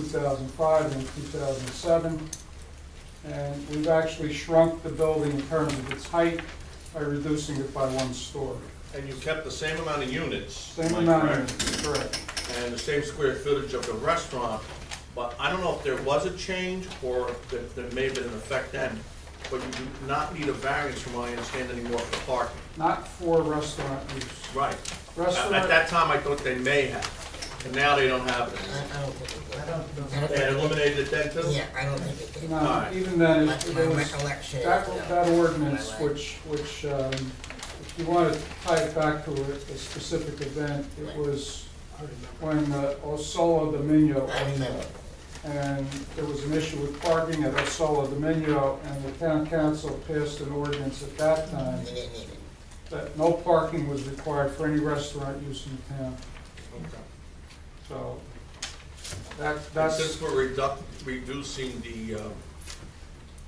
2005 and 2007. And we've actually shrunk the building in terms of its height by reducing it by one story. And you kept the same amount of units, Same am I amount correct? of, correct. and the same square footage of the restaurant, but I don't know if there was a change or if there- there may have been an effect then, but you do not need a variance from what I understand anymore for parking. Not for restaurant use. Right. At at Restaurant, that time, I thought they may have, and now they don't have I it. I don't think, it- I don't. They had eliminated it then too? Yeah, I don't think it did. My, no, Alright. even then, it it my was, recollection. that, no. that ordinance, My leg. which, which, um, if you want to tie it back to a a specific event, it Right. was I remember. when uh, Osola Dominio I owned remember. it. and there was an issue with parking at Osola Dominio, and the town council passed an ordinance at that time We didn't need it. that no parking was required for any restaurant use in the town. Okay. So that, And that's, Since we're reduc- reducing the, uh,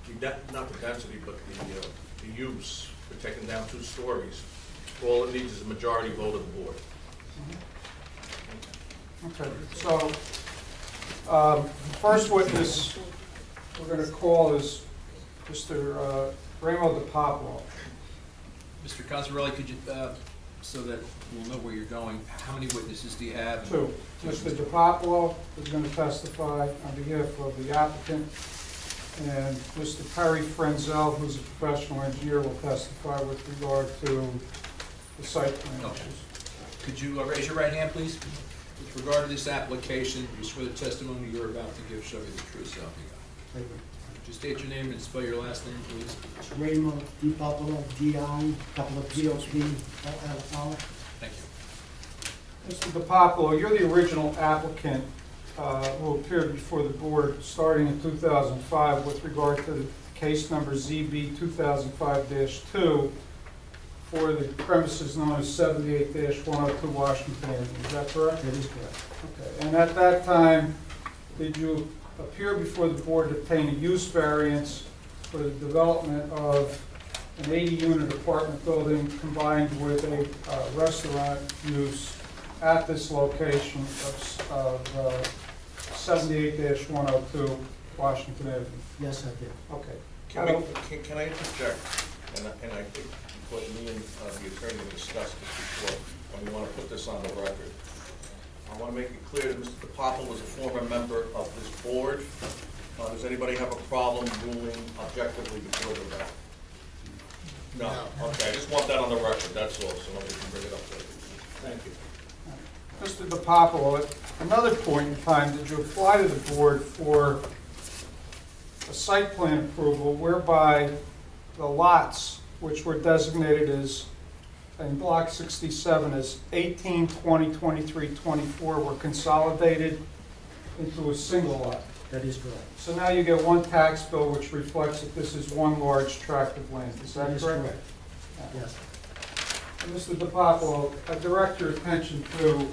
the de- not the density, but the, uh, the use, we're taking down two stories, all it needs is a majority vote of the board. okay, so, um, first witness we're gonna call is Mr. uh, Ramo De Popolo. Mr. Cosarelli, could you, uh, so that we'll know where you're going, how many witnesses do you have? Two, Mr. De Popolo is gonna testify on behalf of the applicant, and Mr. Perry Frenzel, who's a professional engineer, will testify with regard to the site plan Okay. issues. Could you uh, raise your right hand, please? With regard to this application, you swear the testimony you're about to give shall be the truth, so help you God. Just state your name and spell your last name, please. Raymond DiPapalo, D-I, couple of P-O-P-O-L-O. Thank you. Mr. DiPapolo, you're the original applicant uh, who appeared before the board starting in 2005 with regard to the case number ZB 2005-2 for the premises known as 78-102 Washington Avenue. Is that correct? That is correct. Okay, And at that time, did you appear before the board to obtain a use variance for the development of an 80-unit apartment building combined with a uh, restaurant use at this location of of, uh, 78-102 Washington Avenue? Yes, I did. Okay. Can we, can, can I interject? And I, and I think, because me and uh, the attorney discussed this before, and we wanna put this on the record. I wanna make it clear that Mr. DePapo was a former member of this board. Uh, does anybody have a problem ruling objectively before the record? No, No. okay, I just want that on the record, that's all, so nobody can bring it up later. Thank you. Mr. DiPapalo, at another point in time, did you apply to the board for a site plan approval whereby the lots, which were designated as, in block 67, as 18, 20, 23, 24, were consolidated into a single lot? That is correct. So now you get one tax bill which reflects that this is one large tract of land. Is that That correct? is correct. Yes. Mr. DiPapalo, I direct your attention to, and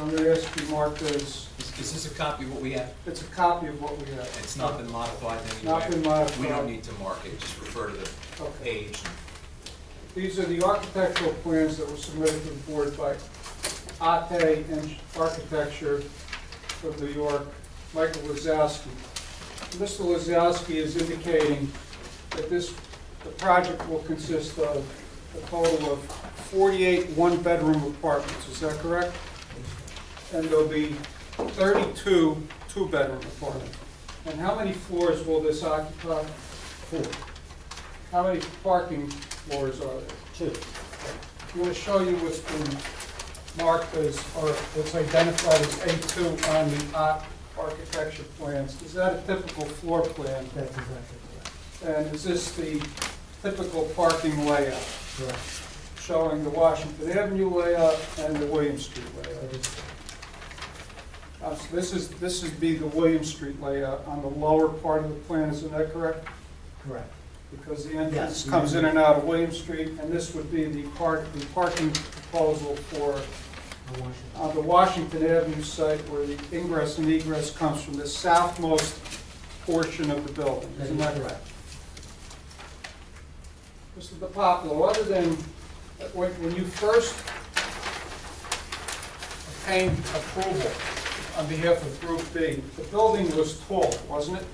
I'm going to ask you to mark this, Is is this a copy of what we have? it's a copy of what we have. It's not been modified in any way? Not been modified. We don't need to mark it, just refer to the Okay. page. These are the architectural plans that were submitted to the board by Ate Eng- Architecture of New York, Michael Lazowski. Mr. Lazowski is indicating that this, the project will consist of a total of 48 one-bedroom apartments, is that correct? And there'll be 32 two-bedroom apartments. And how many floors will this occupy? Four. How many parking floors are there? Two. I'm going to show you what's been marked as, or what's identified as A2 on the ar- architecture plans. Is that a typical floor plan? That's exactly correct. And is this the typical parking layout, Correct. showing the Washington Avenue layout and the William Street layout? That is correct. Uh, so This is, this would be the William Street layout on the lower part of the plan, isn't that correct? Correct. Because the entrance Yes. comes in and out of William Street, and this would be the park, the parking proposal for I want you. on the Washington Avenue site where the ingress and egress comes from the southmost portion of the building, That isn't is that correct. correct? Mr. DiPapalo, other than, when when you first obtained approval on behalf of Group B. The building was tall, wasn't it?